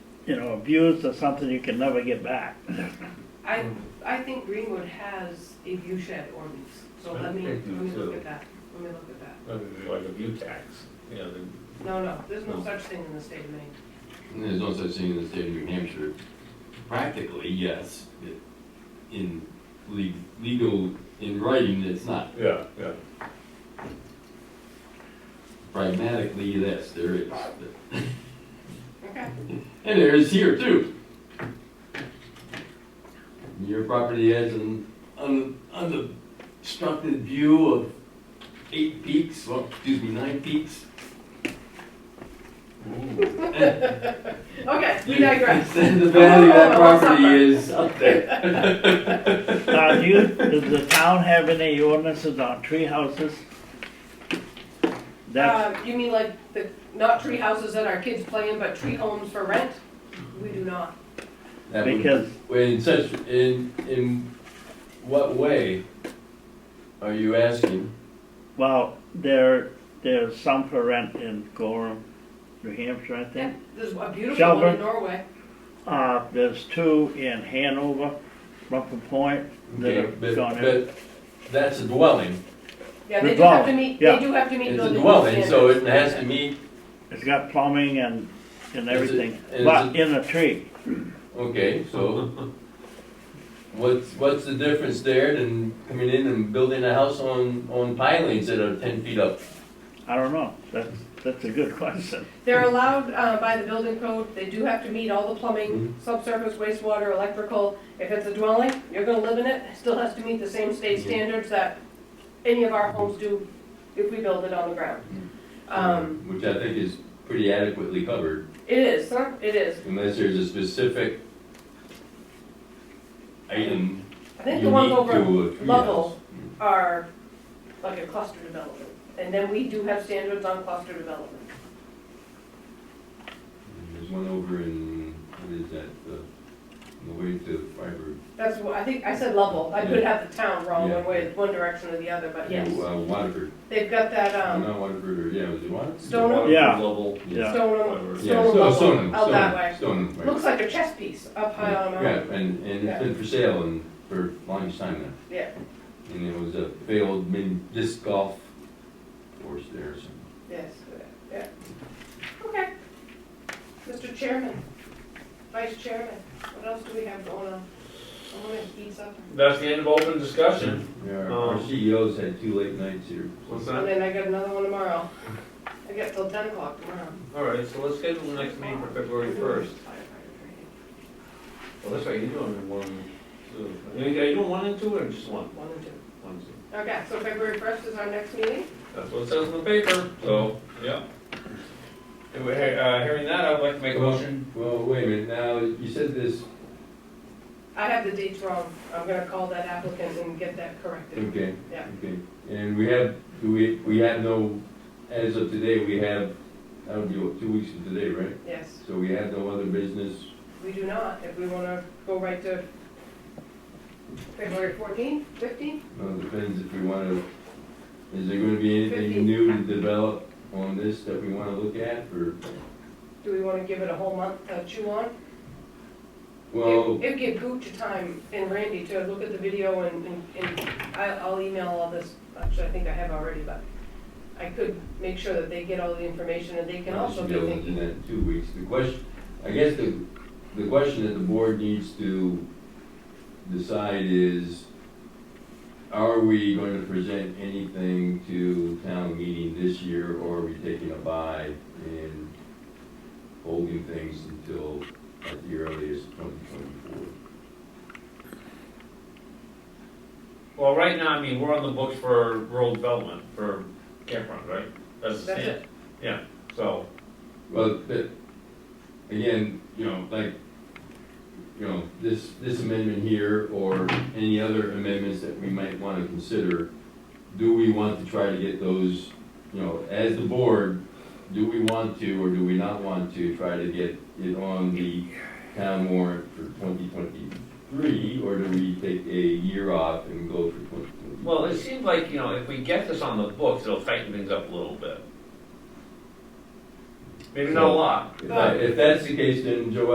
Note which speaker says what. Speaker 1: you know, abused or something you can never get back.
Speaker 2: I, I think Greenwood has a view shed ordinance, so let me,
Speaker 3: I
Speaker 2: let
Speaker 3: think
Speaker 2: me
Speaker 3: so.
Speaker 2: look at that, let me look at that.
Speaker 3: uh, like a view tax, you know, the
Speaker 2: No, no, there's no such thing in the state of Maine.
Speaker 4: There's no such thing in the state of New Hampshire. Practically, yes, It- in le- legal, in writing, it's not.
Speaker 3: Yeah, yeah.
Speaker 4: Pragmatically, yes, there is.
Speaker 2: Okay,
Speaker 4: And there is here too. Your property has an un- unobstructed view of eight peaks, well, excuse me, nine peaks.
Speaker 2: okay, we digress.
Speaker 4: And the value of that property is up there.
Speaker 1: Now, do you, does the town have any ordinances on tree houses? That's,
Speaker 2: Uh, you mean like the, not tree houses that our kids play in, but tree homes for rent? We do not.
Speaker 4: That would-
Speaker 1: because
Speaker 4: In such, in, in what way are you asking?
Speaker 1: Well, there, there's some for rent in Gorham, New Hampshire, I think.
Speaker 2: There's a beautiful one in
Speaker 1: Shelburne.
Speaker 2: Norway.
Speaker 1: Uh, there's two in Hanover, Rumpel Point, that
Speaker 4: Okay,
Speaker 1: have
Speaker 4: but,
Speaker 1: gone in.
Speaker 4: but that's a dwelling,
Speaker 2: Yeah, they do have to
Speaker 1: Dwelling,
Speaker 2: meet,
Speaker 1: yeah.
Speaker 2: they do have to meet
Speaker 4: it's a
Speaker 2: building
Speaker 4: dwelling,
Speaker 2: standards.
Speaker 4: so it has to meet,
Speaker 1: It's got plumbing and, and
Speaker 4: Is it-
Speaker 1: everything,
Speaker 4: is
Speaker 1: but
Speaker 4: it-
Speaker 1: in a tree.
Speaker 4: okay, so. What's, what's the difference there than coming in and building a house on, on pilings that are ten feet up?
Speaker 1: I don't know. That's, that's a good question.
Speaker 2: They're allowed uh, by the building code, they do have to meet all the plumbing,
Speaker 4: Mm-hmm.
Speaker 2: subsurface wastewater, electrical. If it's a dwelling, you're gonna live in it, it still has to meet the same state
Speaker 4: Mhm.
Speaker 2: standards that any of our homes do if we build it on the ground. Um,
Speaker 4: Which I think is pretty adequately covered,
Speaker 2: It is, huh? it is.
Speaker 4: unless there's a specific item
Speaker 2: I think the ones
Speaker 4: unique
Speaker 2: over
Speaker 4: to uh, a tree house.
Speaker 2: Lovell are like a cluster development. And then we do have standards on cluster development.
Speaker 4: There's one over in, what is that, the, on the way to Freiburg?
Speaker 2: That's what, I think, I said Lovell, I could have the town wrong one way, one direction or the other, but yes.
Speaker 4: Uh, Waterford,
Speaker 2: They've got that, um.
Speaker 4: not Waterford, or, yeah, was it Waterford?
Speaker 2: Stone-
Speaker 3: water
Speaker 1: Yeah.
Speaker 3: level.
Speaker 1: Yeah.
Speaker 2: Stone, stone
Speaker 4: Yeah, Stone,
Speaker 2: level
Speaker 4: Stone,
Speaker 2: out Oh, that way.
Speaker 4: Stone, Stone. right.
Speaker 2: Looks like a chess piece up high on a mountain.
Speaker 4: Yeah, and, and it's been for sale and for a long time now,
Speaker 2: Yeah,
Speaker 4: and it was a failed mini disc golf course there, so.
Speaker 2: yes, yeah. Okay. Mr. Chairman, Vice Chairman, what else do we have going on? I'm gonna eat something.
Speaker 3: That's the end of open discussion.
Speaker 4: Yeah, our- our
Speaker 3: Um,
Speaker 4: CEOs had two late nights here.
Speaker 3: What's
Speaker 2: And
Speaker 3: that?
Speaker 2: then I got another one tomorrow. I got till ten o'clock tomorrow.
Speaker 3: All right, so let's schedule the next meeting for February first. Well, that's right, you're doing one, two. Are you doing one and two or just one?
Speaker 2: One and two.
Speaker 3: One, two.
Speaker 2: Okay, so February first is our next meeting?
Speaker 3: That's what it says in the paper, so, yeah. Anyway, hey, uh, hearing that, I'd like to make a motion.
Speaker 4: Well, wait a minute, now, you said this,
Speaker 2: I have the dates wrong. I'm gonna call that applicant and get that corrected.
Speaker 4: okay,
Speaker 2: Yeah.
Speaker 4: okay, and we have, do we, we have no, as of today, we have, that would be what, two weeks from today, right?
Speaker 2: Yes,
Speaker 4: So we have no other business,
Speaker 2: we do not. If we wanna go right to February fourteenth, fifteenth?
Speaker 4: well, it depends if we wanna, is there gonna be anything new to develop on this that we wanna look at, or?
Speaker 2: Do we wanna give it a whole month to chew on?
Speaker 4: Well,
Speaker 2: It'd give Gooch time and Randy to look at the video and, and- and I- I'll email all this, actually, I think I have already, but I could make sure that they get all the information and they can
Speaker 4: I
Speaker 2: also
Speaker 4: should
Speaker 2: be
Speaker 4: be able to do
Speaker 2: thinking.
Speaker 4: that in two weeks, the question, I guess the, the question that the board needs to decide is, are we gonna present anything to town meeting this year, or are we taking a bye and holding things until at the earliest twenty twenty-four?
Speaker 3: Well, right now, I mean, we're on the books for rural development, for campground, right? That's the
Speaker 2: That's
Speaker 3: stand. Yeah, so,
Speaker 4: Well, but, again, you know, like, you know, this, this amendment here, or any other amendments that we might wanna consider, do we want to try to get those, you know, as the board, do we want to, or do we not want to try to get it on the town warrant for twenty twenty-three, or do we take a year off and go for twenty twenty?
Speaker 3: well, it seems like, you know, if we get this on the books, it'll tighten things up a little bit. Maybe not a lot,
Speaker 4: If that's the case, then Joe,